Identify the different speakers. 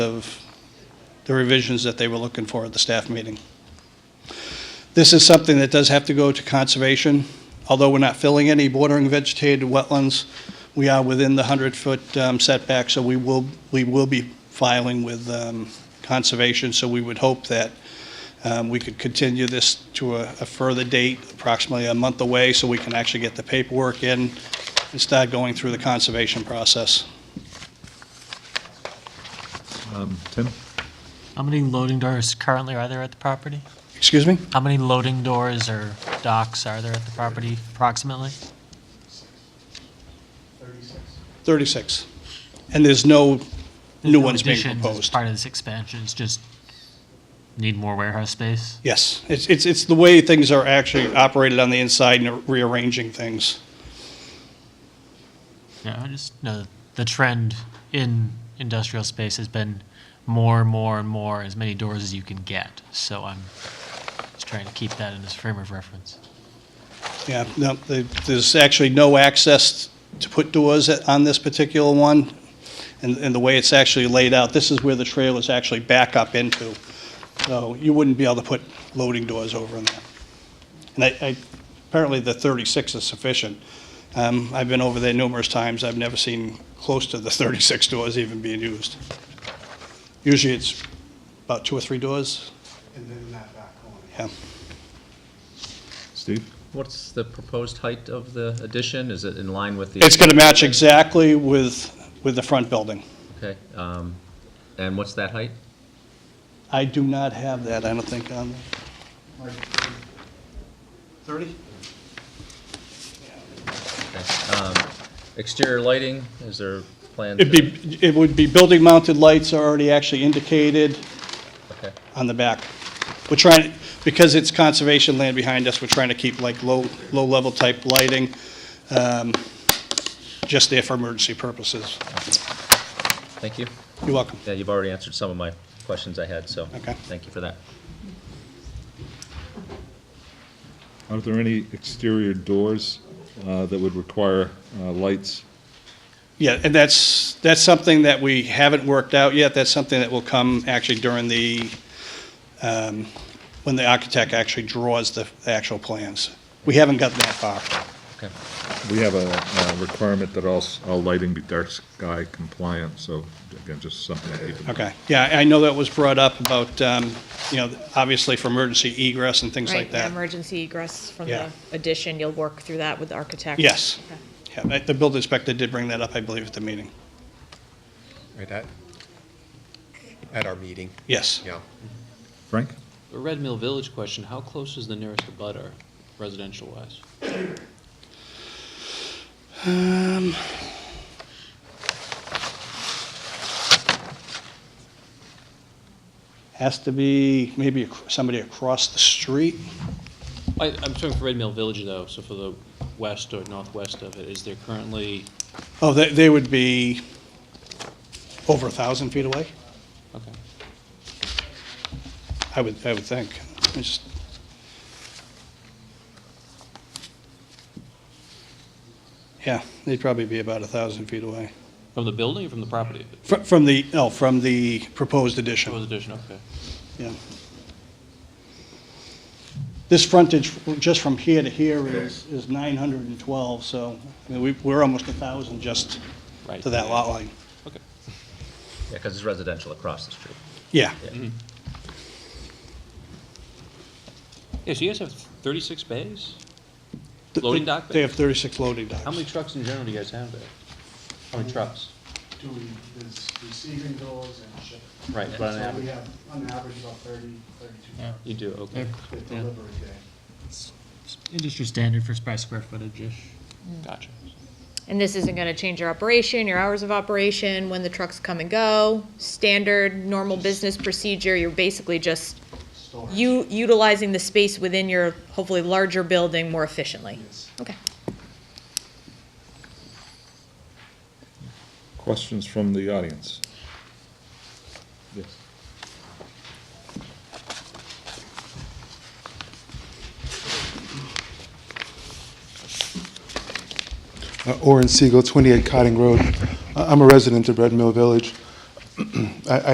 Speaker 1: of the revisions that they were looking for at the staff meeting. This is something that does have to go to conservation. Although we're not filling any bordering vegetated wetlands, we are within the 100-foot setback, so we will, we will be filing with um, conservation. So we would hope that um, we could continue this to a a further date, approximately a month away, so we can actually get the paperwork in and start going through the conservation process.
Speaker 2: Tim?
Speaker 3: How many loading doors currently are there at the property?
Speaker 1: Excuse me?
Speaker 3: How many loading doors or docks are there at the property approximately?
Speaker 1: 36. And there's no
Speaker 3: There's
Speaker 1: new
Speaker 3: no
Speaker 1: ones being
Speaker 3: additions as
Speaker 1: proposed.
Speaker 3: Part of this expansion is just need more warehouse space?
Speaker 1: Yes, it's, it's, it's the way things are actually operated on the inside and rearranging things.
Speaker 3: Yeah, I just know the trend in industrial space has been more and more and more, as many doors as you can get. So I'm just trying to keep that in this frame of reference.
Speaker 1: Yeah, no, the- there's actually no access to put doors at- on this particular one, and, and the way it's actually laid out, this is where the trailers actually back up into. So you wouldn't be able to put loading doors over in that. And I, I, apparently the 36 is sufficient. Um, I've been over there numerous times, I've never seen close to the 36 doors even being used. Usually it's about two or three doors,
Speaker 4: and then in that back corner.
Speaker 1: yeah.
Speaker 2: Steve?
Speaker 5: What's the proposed height of the addition? Is it in line with the?
Speaker 1: It's gonna match exactly with, with the front building.
Speaker 5: Okay, um, and what's that height?
Speaker 1: I do not have that, I don't think, on. Thirty?
Speaker 5: Okay, um, Exterior lighting, is there plans?
Speaker 1: It'd be, it would be building mounted lights are already actually indicated
Speaker 5: Okay,
Speaker 1: on the back. We're trying, because it's conservation land behind us, we're trying to keep like low, low-level type lighting, um, just there for emergency purposes.
Speaker 5: thank you.
Speaker 1: You're welcome.
Speaker 5: Yeah, you've already answered some of my questions I had, so.
Speaker 1: Okay.
Speaker 5: Thank you for that.
Speaker 2: Are there any exterior doors uh, that would require uh, lights?
Speaker 1: Yeah, and that's, that's something that we haven't worked out yet. That's something that will come actually during the, um, when the architect actually draws the actual plans. We haven't gotten that far.
Speaker 5: Okay.
Speaker 2: We have a uh, requirement that all, s- all lighting be dark sky compliant, so again, just something to keep in mind.
Speaker 1: Okay, yeah, I know that was brought up about, um, you know, obviously for emergency egress and things
Speaker 6: Right,
Speaker 1: like
Speaker 6: yeah,
Speaker 1: that.
Speaker 6: Emergency egress from
Speaker 1: Yeah.
Speaker 6: the addition, you'll work through that with the architect?
Speaker 1: Yes.
Speaker 6: Okay.
Speaker 1: Yeah, that- The building inspector did bring that up, I believe, at the meeting.
Speaker 4: Right, at, at our meeting,
Speaker 1: Yes.
Speaker 4: yeah.
Speaker 2: Frank?
Speaker 7: A Red Mill Village question, how close is the nearest abutter residential wise?
Speaker 1: Has to be maybe ac- somebody across the street.
Speaker 7: I, I'm talking for Red Mill Village though, so for the west or northwest of it, is there currently,
Speaker 1: Oh, they, they would be over a 1,000 feet away,
Speaker 7: okay.
Speaker 1: I would, I would think. I just- Yeah, they'd probably be about a 1,000 feet away.
Speaker 7: From the building or from the property?
Speaker 1: Fr- From the, no, from the proposed addition.
Speaker 7: That was addition, okay.
Speaker 1: Yeah. This frontage, just from here to here is, is 912, so, I mean, we, we're almost 1,000 just
Speaker 7: Right.
Speaker 1: to that lot line.
Speaker 7: Okay.
Speaker 5: Yeah, because it's residential across the street.
Speaker 1: Yeah,
Speaker 7: Yeah, so you guys have thirty-six bays?
Speaker 1: Th-
Speaker 7: Loading
Speaker 1: they-
Speaker 7: dock bay?
Speaker 1: They have 36 loading
Speaker 7: How many
Speaker 1: docks.
Speaker 7: trucks in general do you guys have there? How many trucks?
Speaker 4: Do we, there's receiving doors and shipping.
Speaker 7: Right, but on
Speaker 4: So we
Speaker 7: average,
Speaker 4: have, on average, about 30, 32 cars
Speaker 7: you do, okay.
Speaker 4: with
Speaker 7: Yeah.
Speaker 4: delivery day.
Speaker 3: Industry standard for by square footage-ish.
Speaker 7: Gotcha.
Speaker 6: And this isn't going to change your operation, your hours of operation, when the trucks come and go, standard, normal business procedure, you're basically just
Speaker 4: Storage.
Speaker 6: u- utilizing the space within your hopefully larger building more efficiently?
Speaker 4: Yes.
Speaker 6: Okay.
Speaker 2: Questions from the audience? Yes.
Speaker 8: Uh, Orin Siegel, 28 Cotting Road. I- I'm a resident of Red Mill Village. I I